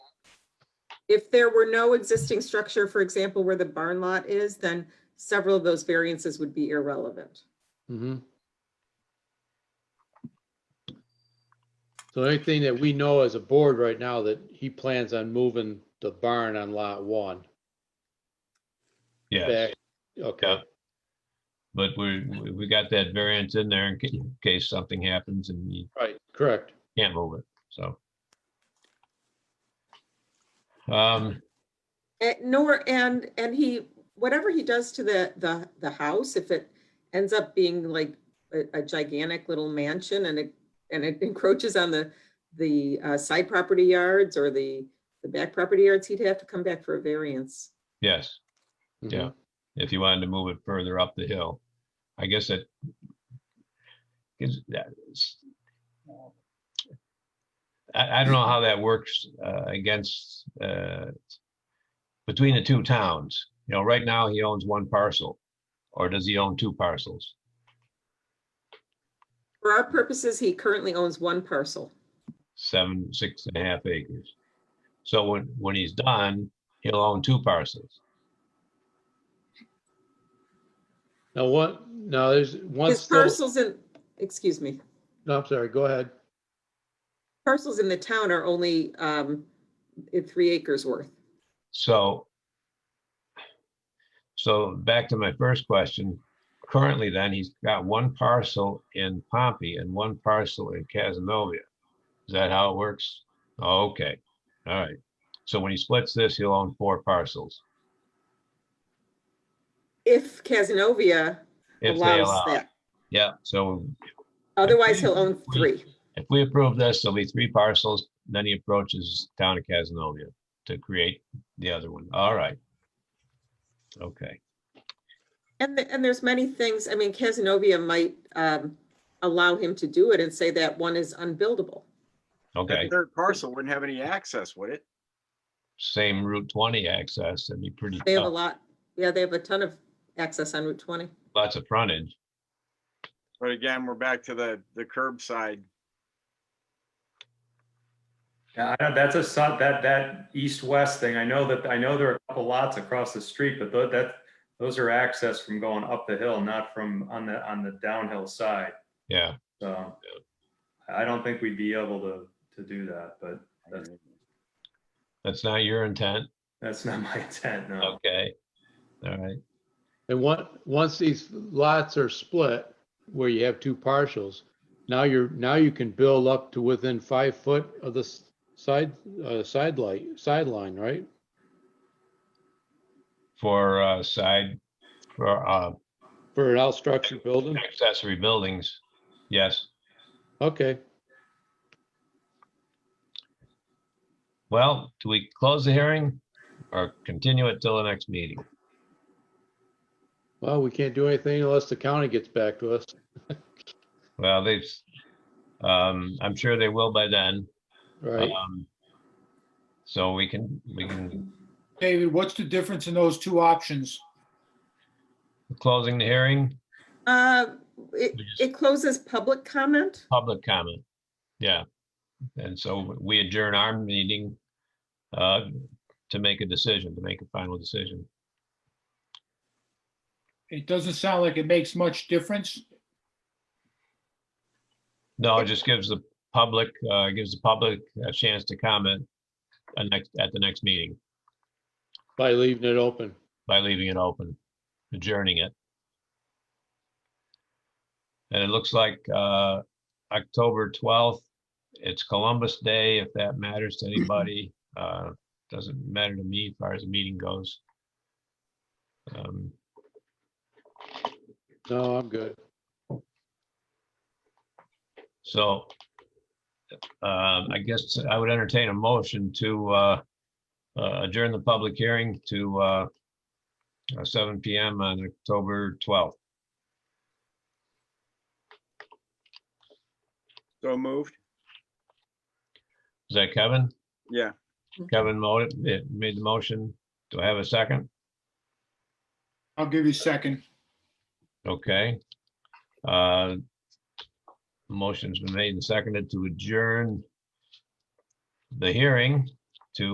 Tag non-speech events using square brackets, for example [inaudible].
if there were no existing structure, for example, where the barn lot is, then several of those variances would be irrelevant. Mm-hmm. So the only thing that we know as a board right now that he plans on moving the barn on lot one. Yeah, back- Okay, Yeah. but we, we- we got that variance in there in ca- in case something happens and you right, correct. can't move it, so. Um, And Eh, nor, and, and he, whatever he does to the, the, the house, if it ends up being like a a gigantic little mansion and it, and it [laughs] encroaches on the, the uh, side property yards or the, the back property yards, he'd have to come back for a variance. yes, Yeah. Mhm. if you wanted to move it further up the hill, I guess that is that is- I, I don't know how that works, uh, against, uh, between the two towns, you know, right now he owns one parcel, or does he own two parcels? For our purposes, he currently owns one parcel. seven, six and a half acres. So when, when he's done, he'll own two parcels. Now what, now there's, once, His those- parcels in, excuse me, no, I'm sorry, go ahead. parcels in the town are only um, i- three acres worth. So so back to my first question, currently then, he's got one parcel in Pompey and one parcel in Casanova. Is that how it works? Oh, Okay, all right. So when he splits this, he'll own four parcels. If Casanova If they allows allow. that, Yeah, so otherwise he'll own We- three. If we approve this, there'll be three parcels, then he approaches town of Casanova to create the other one. All right. Okay, And, the- and there's many things, I mean, Casanova might um, allow him to do it and say that one is unbuildable. okay. That third parcel wouldn't have any access, would it? Same Route twenty access, that'd be pretty They have a tough. lot, yeah, they have a ton of access on Route 20. Lots of frontage. But again, we're back to the, the curbside. Yeah, I don't- that's a, sub- that, that east-west thing, I know that, I know there are a couple lots across the street, but tho- that, those are access from going up the hill, not from on the, on the downhill side, Yeah, so. I don't think we'd be able to, to do that, but that's, that's not your intent. that's not [laughs] my intent, no. Okay. All right, And one, once these lots are split, where you have two partials, now you're, now you can build up to within five foot of the s- side, uh, side light, sideline, right? for uh side, for uh For an out-structured building? accessory buildings, yes. Okay, Well, do we close the hearing or continue it till the next meeting? well, we can't do anything unless the county gets back to us. Well, they've, um, I'm sure they will by then. Right, Um, So we can, we can, David, what's the difference in those two options? closing the hearing, Uh, It, We just- it closes public comment. public comment. Yeah. And so we adjourn our meeting uh, to make a decision, to make a final decision. It doesn't sound like it makes much difference. No, it just gives the public, uh, gives the public a chance to comment uh, next, at the next meeting by leaving it open. by leaving it open, adjourning it. And it looks like uh, October 12th, it's Columbus Day, if that matters to anybody. Uh, Doesn't matter to me as far as the meeting goes. Um, No, I'm good. So um, I guess I would entertain a motion to uh, uh, adjourn the public hearing to uh, uh, 7 PM on October 12th. So moved. Is that Kevin? Yeah, Kevin mo- eh, made the motion. Do I have a second? I'll give you a second. Okay. Uh, Motion's been made and seconded to adjourn the hearing